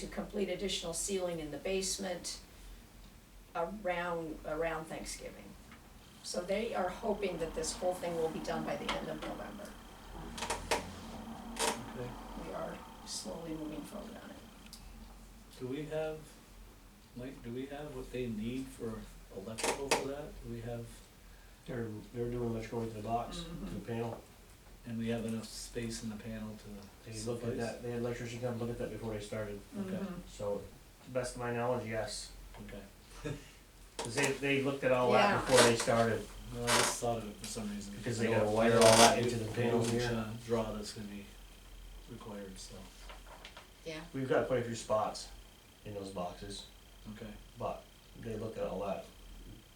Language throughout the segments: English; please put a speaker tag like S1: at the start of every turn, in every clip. S1: to complete additional ceiling in the basement around, around Thanksgiving. So they are hoping that this whole thing will be done by the end of November.
S2: Okay.
S1: We are slowly moving forward on it.
S2: Do we have, Mike, do we have what they need for electrical for that? Do we have,
S3: They're, they're doing much going to the box, to the panel.
S2: and we have enough space in the panel to
S3: They
S2: suffice?
S3: looked at that, they had electrician come look at that before they started.
S2: Okay.
S3: So, to best of my knowledge, yes.
S2: Okay,
S3: 'Cause they, they looked at all that
S1: Yeah.
S3: before they started,
S2: well, I just thought of it for some reason.
S3: because
S2: I
S3: they
S2: know
S3: gotta
S2: a
S3: wire all
S2: panel
S3: that
S2: would-
S3: into the panel
S2: would,
S3: here.
S2: uh, Draw that's gonna be required, so,
S1: Yeah.
S3: We've got quite a few spots in those boxes,
S2: okay,
S3: but they looked at all that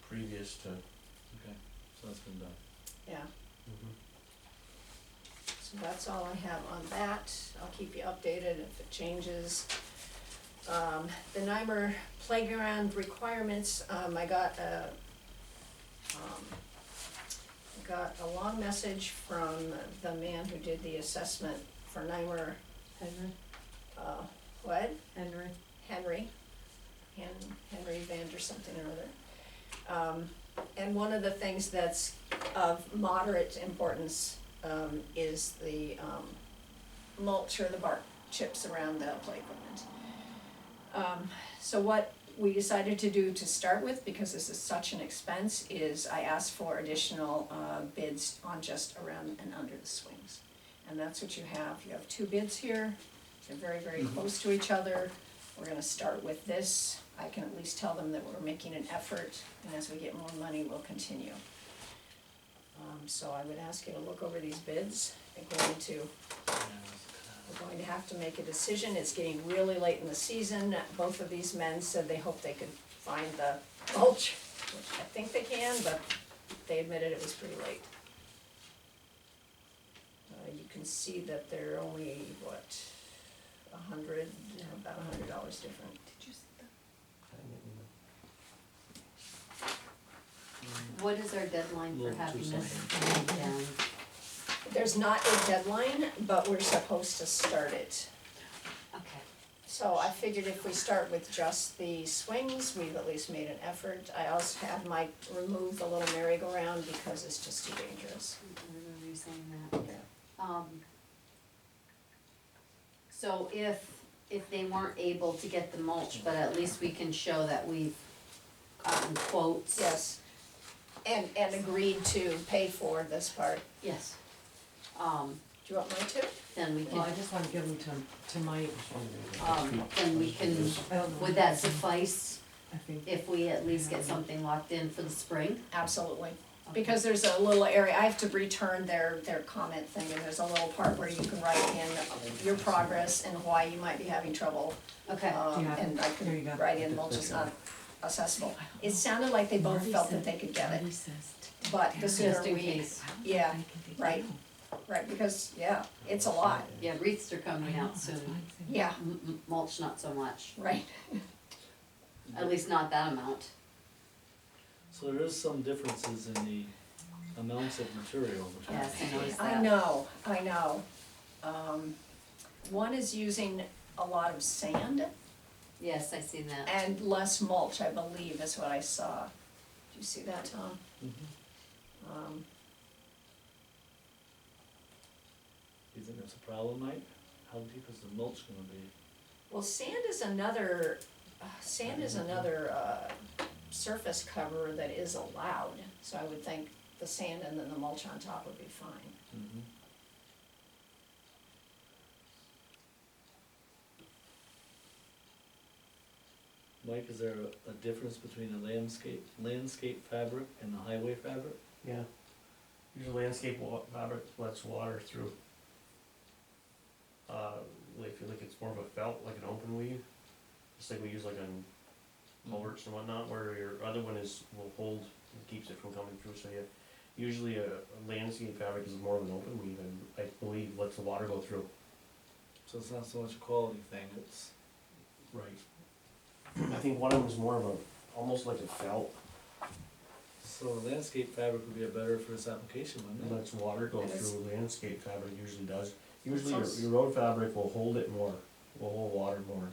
S3: previous to.
S2: okay, so that's been done.
S1: Yeah, so that's all I have on that. I'll keep you updated if it changes. Um, the NYMER playground requirements, um, I got a, um, got a long message from the man who did the assessment for NYMER,
S4: Henry,
S1: uh, what?
S4: Henry.
S1: Henry, Hen- Henry Vander something or other. Um, and one of the things that's of moderate importance, um, is the, um, mulch or the bark chips around the play equipment. Um, so what we decided to do to start with, because this is such an expense, is I asked for additional, uh, bids on just around and under the swings. And that's what you have, you have two bids here, they're very, very
S2: Mhm.
S1: close to each other. We're gonna start with this, I can at least tell them that we're making an effort, and as we get more money, we'll continue. Um, so I would ask you to look over these bids, I think we're going to
S2: Yeah,
S1: we're going to have to make a decision, it's getting really late in the season, both of these men said they hoped they could find the mulch, which I think they can, but they admitted it was pretty late. Uh, you can see that they're only, what, a hundred, about a hundred dollars different. Did you see that?
S4: What is our deadline for
S2: Little
S4: having
S2: too
S4: this thing down?
S1: There's not a deadline, but we're supposed to start it.
S4: Okay.
S1: So I figured if we start with just the swings, we've at least made an effort. I also had Mike remove the little merry-go-round because it's just too dangerous.
S4: I remember you saying that. Um, so if, if they weren't able to get the mulch, but at least we can show that we've gotten quotes.
S1: Yes. And, and agreed to pay for this part.
S4: Yes. Um,
S1: Do you want mine too?
S4: then we
S5: Well, I
S4: can,
S5: just wanna give them to, to Mike,
S4: um, then we can,
S5: I don't know.
S4: would that suffice
S5: I think,
S4: if we at least get something locked in for the spring?
S1: Absolutely.
S4: Okay.
S1: Because there's a little area, I have to return their, their comment thing, and there's a little part where you can write in your progress and why you might be having trouble.
S4: Okay,
S1: Um,
S5: Yeah.
S1: and I
S5: There you go.
S1: could write in mulch is not accessible. It sounded like they both
S5: Marty
S1: felt
S5: said-
S1: that they could get it.
S5: Marty says to
S1: But the
S5: take care.
S1: sooner
S4: just in
S1: we,
S4: case.
S1: yeah,
S5: I can take
S1: right.
S5: it out.
S1: right, because, yeah, it's a lot,
S4: Yeah, wreaths are
S5: I
S4: coming
S5: know,
S4: out
S5: that's why
S4: soon.
S5: I said-
S1: yeah,
S4: M- m- Mulch, not so much.
S1: right.
S4: At least not that amount.
S2: So there is some differences in the amounts of material between.
S4: Yes, I noticed that.
S1: I know, I know. Um, one is using a lot of sand
S4: Yes, I see that.
S1: and less mulch, I believe, is what I saw. Did you see that, Tom?
S2: Mhm.
S1: Um,
S2: You think that's a problem, Mike? How deep is the mulch gonna be?
S1: well, sand is another, uh, sand is another, uh, surface cover that is allowed, so I would think the sand and then the mulch on top would be fine.
S2: Mm-hmm. Mike, is there a- a difference between a landscape, landscape fabric and the highway fabric?
S3: Yeah. Usually landscape wa- fabric lets water through. Uh, like, if you look, it's more of a felt, like an open weave, just like we use like on mulch and whatnot, where your other one is, will hold, and keeps it from coming through, so yeah. Usually a a landscape fabric is more of an open weave, and I believe lets the water go through.
S2: So it's not so much a quality thing, it's,
S3: Right. I think one of them is more of a, almost like a felt,
S2: so the landscape fabric would be a better for this application,
S3: It
S2: wouldn't it?
S3: lets water go
S1: It is.
S3: through, landscape fabric usually does. Usually your,
S1: sounds-
S3: your road fabric will hold it more, will hold water more,